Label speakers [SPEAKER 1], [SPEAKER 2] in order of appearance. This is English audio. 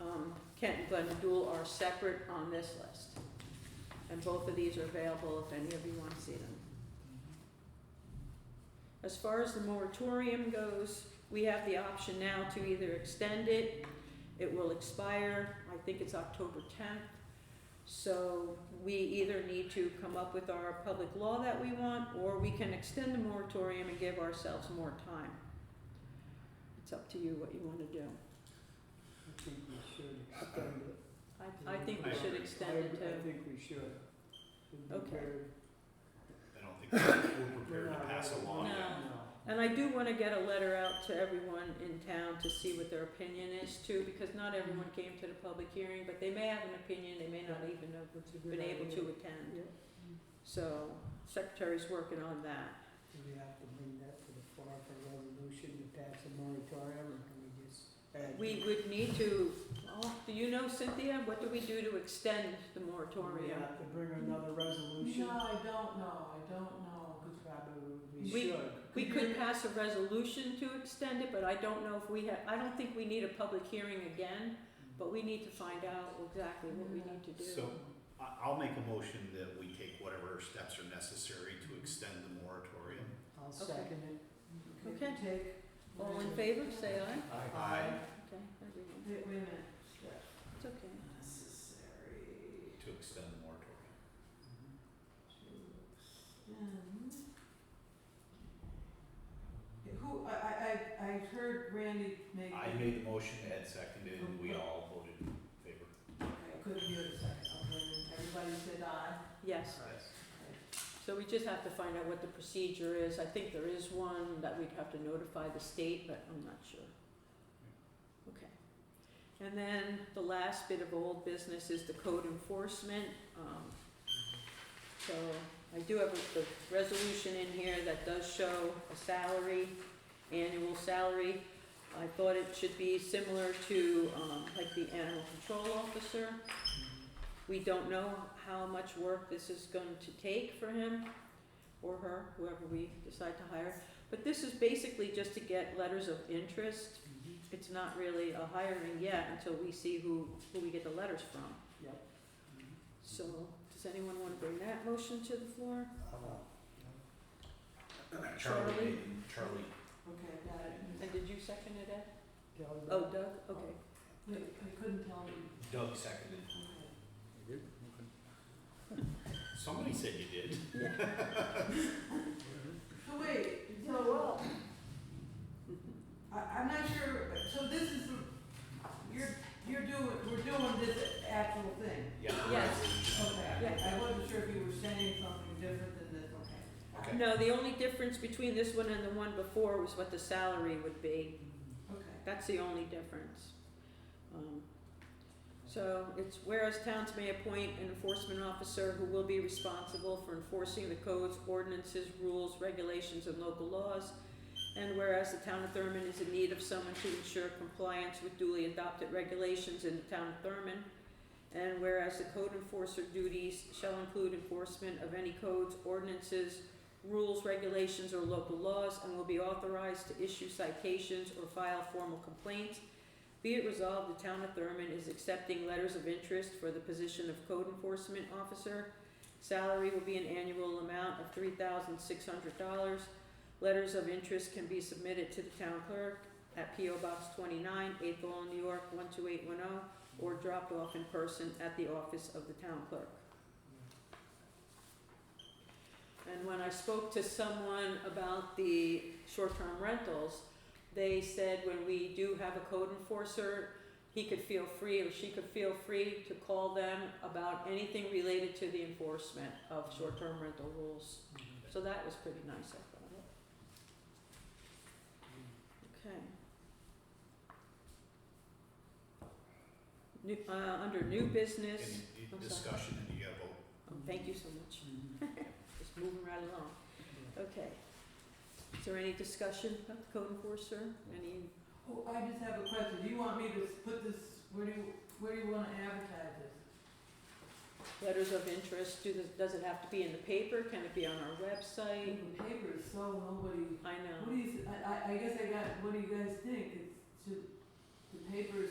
[SPEAKER 1] um, Kent and Glen Dual are separate on this list. And both of these are available if any of you wanna see them. As far as the moratorium goes, we have the option now to either extend it, it will expire, I think it's October tenth. So we either need to come up with our public law that we want, or we can extend the moratorium and give ourselves more time. It's up to you what you wanna do.
[SPEAKER 2] I think we should extend it.
[SPEAKER 1] I, I think we
[SPEAKER 3] I
[SPEAKER 1] should
[SPEAKER 3] agree.
[SPEAKER 1] extend it
[SPEAKER 2] I, I
[SPEAKER 1] to,
[SPEAKER 2] think we should. It'd be
[SPEAKER 1] Okay.
[SPEAKER 2] better-
[SPEAKER 3] I don't think we're
[SPEAKER 2] we're
[SPEAKER 3] prepared to
[SPEAKER 2] not
[SPEAKER 3] pass
[SPEAKER 2] ready.
[SPEAKER 3] along
[SPEAKER 1] No.
[SPEAKER 3] that.
[SPEAKER 1] and I do wanna get a letter out to everyone in town to see what their opinion is too, because not everyone came to the public hearing, but they may have an opinion, they may not even have
[SPEAKER 2] That's a good
[SPEAKER 1] been able to
[SPEAKER 2] idea.
[SPEAKER 1] attend.
[SPEAKER 2] Yeah.
[SPEAKER 1] So, secretary's working on that.
[SPEAKER 2] Do we have to bring that to the floor for resolution to pass a moratorium, or can we just add?
[SPEAKER 1] We
[SPEAKER 2] it?
[SPEAKER 1] would need to, oh, do you know Cynthia, what do we do to extend the
[SPEAKER 2] Do we
[SPEAKER 1] moratorium?
[SPEAKER 2] have to bring another resolution?
[SPEAKER 4] No, I don't know, I don't know, 'cause
[SPEAKER 2] Probably we
[SPEAKER 1] We-
[SPEAKER 2] should.
[SPEAKER 1] We could pass a resolution to extend it, but I don't know if we have, I don't think we need a public hearing again, but we need to find out exactly what we need to do.
[SPEAKER 3] So I, I'll make a motion that we take whatever steps are necessary to extend the moratorium.
[SPEAKER 2] I'll second it.
[SPEAKER 4] we
[SPEAKER 1] Okay.
[SPEAKER 4] can take.
[SPEAKER 1] All in favor, say aye.
[SPEAKER 3] Aye.
[SPEAKER 1] Okay, everyone,
[SPEAKER 4] Wait, wait a minute,
[SPEAKER 1] it's okay.
[SPEAKER 4] necessary
[SPEAKER 3] To extend the moratorium.
[SPEAKER 4] to extend. Who, I, I, I, I heard Randy make.
[SPEAKER 3] I made the motion, Ed seconded, and we all voted in favor.
[SPEAKER 4] Okay, I couldn't hear the second, okay, everybody said aye.
[SPEAKER 1] Yes, so we just have to find out what the procedure is. I think there is one that we'd have to notify the state, but I'm not sure. Okay. And then the last bit of old business is the code enforcement. Um, So I do have a- the resolution in here that does show a salary, annual salary. I thought it should be similar to, um, like the animal control officer. We don't know how much work this is going to take for him or her, whoever we decide to hire. But this is basically just to get letters of interest.
[SPEAKER 2] Mhm.
[SPEAKER 1] It's not really a hiring yet until we see who, who we get the letters from.
[SPEAKER 2] Yep. Mhm.
[SPEAKER 1] So, does anyone wanna bring that motion to the floor?
[SPEAKER 2] Uh,
[SPEAKER 3] Charlie,
[SPEAKER 1] Charlie?
[SPEAKER 3] made- Charlie,
[SPEAKER 4] Okay, I got it.
[SPEAKER 1] And did you second it, Ed?
[SPEAKER 2] Kelly,
[SPEAKER 1] Oh, Doug, okay.
[SPEAKER 4] Wait, I couldn't tell you.
[SPEAKER 3] Doug seconded.
[SPEAKER 4] Okay.
[SPEAKER 3] Somebody said you did.
[SPEAKER 4] So wait, so. I, I'm not sure, so this is, the- you're, you're doing, we're doing this actual thing.
[SPEAKER 3] Yeah. the
[SPEAKER 1] Yes.
[SPEAKER 3] resolution.
[SPEAKER 4] Okay, I- I wasn't sure if you were saying something different than this, okay.
[SPEAKER 3] Okay.
[SPEAKER 1] No, the only difference between this one and the one before was what the salary would be.
[SPEAKER 4] Okay.
[SPEAKER 1] That's the only difference. Um, So it's whereas towns may appoint an enforcement officer who will be responsible for enforcing the codes, ordinances, rules, regulations, and local laws. And whereas the town of Thurmond is in need of someone to ensure compliance with duly adopted regulations in the town of Thurmond. And whereas the code enforcer duties shall include enforcement of any codes, ordinances, rules, regulations, or local laws and will be authorized to issue citations or file formal complaints. Be it resolved, the town of Thurmond is accepting letters of interest for the position of code enforcement officer. Salary will be an annual amount of three thousand six hundred dollars. Letters of interest can be submitted to the town clerk at P O Box twenty-nine, Eighth Lawn, New York, one two eight one oh, or dropped off in person at the office of the town clerk. And when I spoke to someone about the short-term rentals, they said when we do have a code enforcer, he could feel free or she could feel free to call them about anything related to the enforcement of short-term rental rules.
[SPEAKER 2] Mhm.
[SPEAKER 1] So that was pretty nice, I thought. Okay. New, uh, under new business,
[SPEAKER 3] Any
[SPEAKER 1] I'm sorry.
[SPEAKER 3] discussion, and you gotta vote.
[SPEAKER 1] oh, thank you so much,
[SPEAKER 2] Mhm.
[SPEAKER 1] just moving right along.
[SPEAKER 2] Yeah.
[SPEAKER 1] Okay. Is there any discussion about the code enforcer? Any,
[SPEAKER 4] Oh, I just have a question, do you want me to s- put this, where do you, where do you wanna advertise this?
[SPEAKER 1] letters of interest, do the, does it have to be in the paper, can it be on our website?
[SPEAKER 4] The paper is so nobody,
[SPEAKER 1] I
[SPEAKER 4] what
[SPEAKER 1] know,
[SPEAKER 4] do you, s- I, I- I guess I got, what do you guys think, it's, should, the paper is